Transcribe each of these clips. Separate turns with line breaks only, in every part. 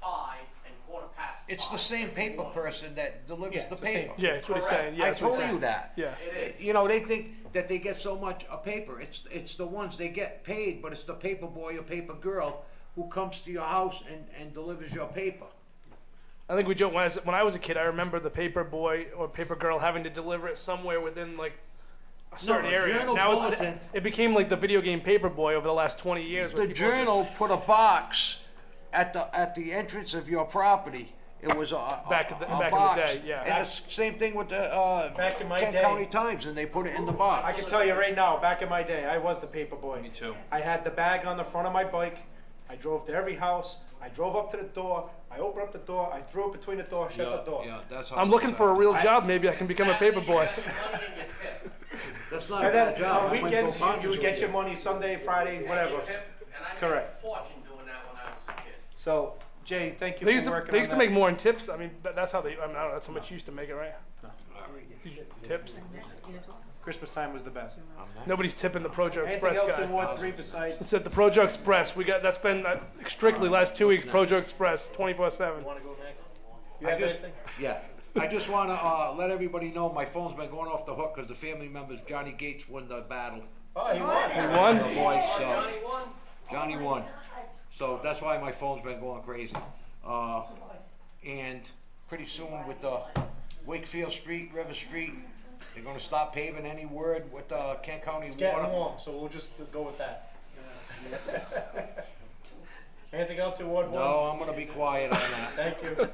uh,
it's the same paper person that delivers
Yeah,
the
it's the same.
paper.
Yeah, that's what he's
Correct.
saying. Yeah,
I
that's what he's
told
saying.
you that.
Yeah.
It is.
You know, they think that they get so much a paper, it's, it's the ones they get paid, but it's the paper boy or paper girl who comes to your house and, and delivers your paper.
I think we joke when I, was, when I was a kid. I remember the paper boy or paper girl having to deliver it somewhere within like a certain
the
area.
Journal
now it's, it,
bulletin-
it became like the video game paper boy over the last twenty years. where
The
people just-
journal put a box at the, at the entrance of your property. It was a, a,
Back in the-
a
back in the
box.
day, yeah.
And the s- same thing with the, uh,
Back in my
Kent
day.
County Times, and they put it in the
I
box.
can tell you right now, back in my day, I was the paper boy.
Me too.
I had the bag on the front of my bike. I drove to every house. I drove up to the door. I opened up the door. I threw it between the door, shut the door.
Yeah, that's how.
I'm
it's
looking for a
done.
real job. Maybe I can become a paper boy.
That's not a
And then
bad job.
on
I went to
weekends,
a
you,
Bonds
you would get
with
your money Sunday, Friday, whatever.
And I made a
Correct.
fortune doing that when I was a kid.
So, Jay, thank you
They
for
used to,
working
they used to
on
make
that.
more in tips. I mean, but that's how they. I, mean, I don't know. That's how much you used to make it, right? Tips.
Christmas time was the best.
Nobody's tipping the Projo
Anything
Express
else
guy.
in Ward Three besides?
It's at the Projo Express. We got that's been uh, strictly last two weeks. Projo Express, twenty four seven.
You
I
have
just-
anything?
Yeah, I just want to uh, let everybody know my phone's been going off the hook because the family members Johnny Gates won the battle.
Oh, he won.
One.
The voice, so
Johnny won.
Johnny won. So that's why my phone's been going crazy. Uh, and pretty soon with the Wakefield Street, River Street, they're going to stop paving any word with uh, Kent County
Getting
Water.
warm, so we'll just go with that. Anything else in Ward One?
No, I'm going to be quiet on that.
Thank you.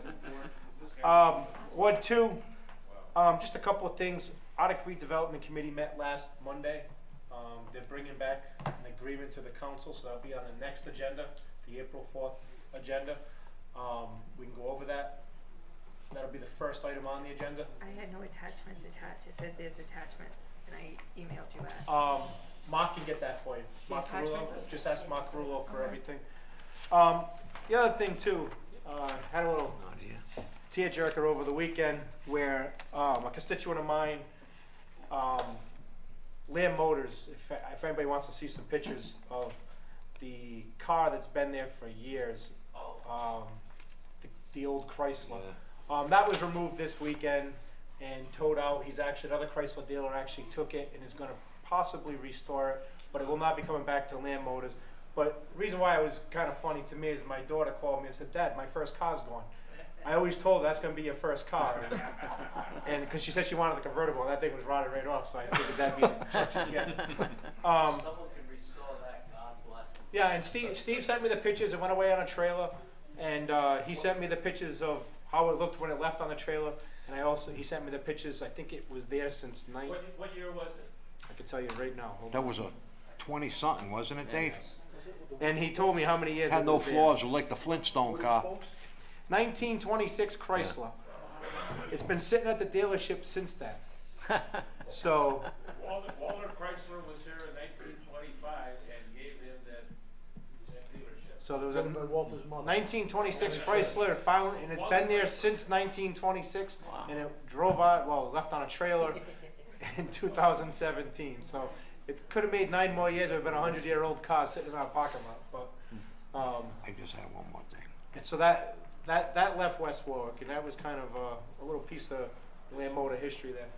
Um, Ward two, um, just a couple of things. Otic redevelopment committee met last Monday. Um, they're bringing back an agreement to the council, so that'll be on the next agenda, the April fourth agenda. Um, we can go over that. That'll be the first item on the agenda.
I had no attachments attached, it said there's attachments, and I emailed you that.
Um, Mark can get that for you. Mark
Yes,
Carullo,
attachments.
just ask Mark Carullo for
Okay.
everything. Um, the other thing too, uh, had a little tearjerker over the weekend where um, a constituent of mine, um, Lamb Motors, if, if anybody wants to see some pictures of the car that's been there for years,
Oh,
um, the, the old Chrysler. Um, that was removed this weekend and towed out. He's actually, another Chrysler dealer actually took it and is gonna possibly restore it, but it will not be coming back to Land Motors. But reason why it was kinda funny to me is my daughter called me and said, Dad, my first car's gone. I always told her that's gonna be your first car. And, cause she said she wanted the convertible and that thing was rotted right off, so I figured that'd be the truck she'd get. Um,
Someone can restore that, God bless him.
yeah, and Steve, Steve sent me the pictures. It went away on a trailer, and uh, he sent me the pictures of how it looked when it left on the trailer. And I also he sent me the pictures. I think it was there since night.
What, what year was it?
I could tell you right now. Hold on.
That was a 20 something, wasn't it, Dave?
And he told me how many years.
Had
it
no
was there.
flaws, like the Flintstone car.
1926 Chrysler. It's been sitting at the dealership since then. so
Walter, Walter Chrysler was here in nineteen twenty-five and gave him that, that dealership.
so there was a 1926 Chrysler finally, and it's been there since 1926, and it drove out, well, left on a trailer in 2017. So it could have made nine more years. It would have been a hundred-year-old car sitting in our parking lot. But um,
I just had one more thing.
and so that that that left West Warwick, and that was kind of a, a little piece of Land Motor history there.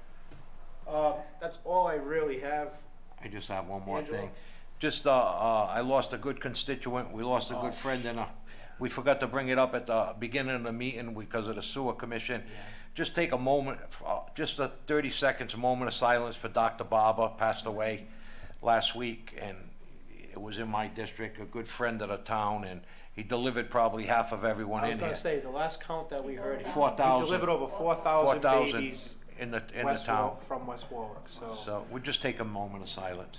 Uh, that's all I really have.
I just have one more
Angelo?
thing. Just, uh, uh, I lost a good constituent, we lost a
Oh.
good friend, and, uh, we forgot to bring it up at the beginning of the meeting because of the sewer commission. Just take a moment, uh, just a thirty seconds, a moment of silence for Dr. Barber, passed away last week, and it was in my district, a good friend of the town, and he delivered probably half of everyone
I was
in
going
here.
to say the last count that we heard, he-
Four
he
thousand.
delivered over
Four
four thousand
thousand
babies
in the, in the
West
town.
Warwick- from West Warwick. So,
So, we'll just take a moment of silence.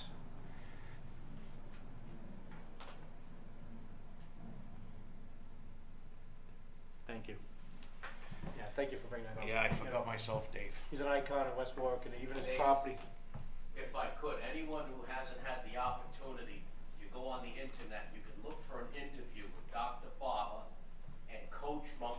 thank you. Yeah, thank you for bringing that up.
Yeah, I forgot myself, Dave.
He's an icon in West Warwick, and even his property.
If I could, anyone who hasn't had the opportunity, you go on the internet, you can look for an interview with Dr. Barber and Coach Monk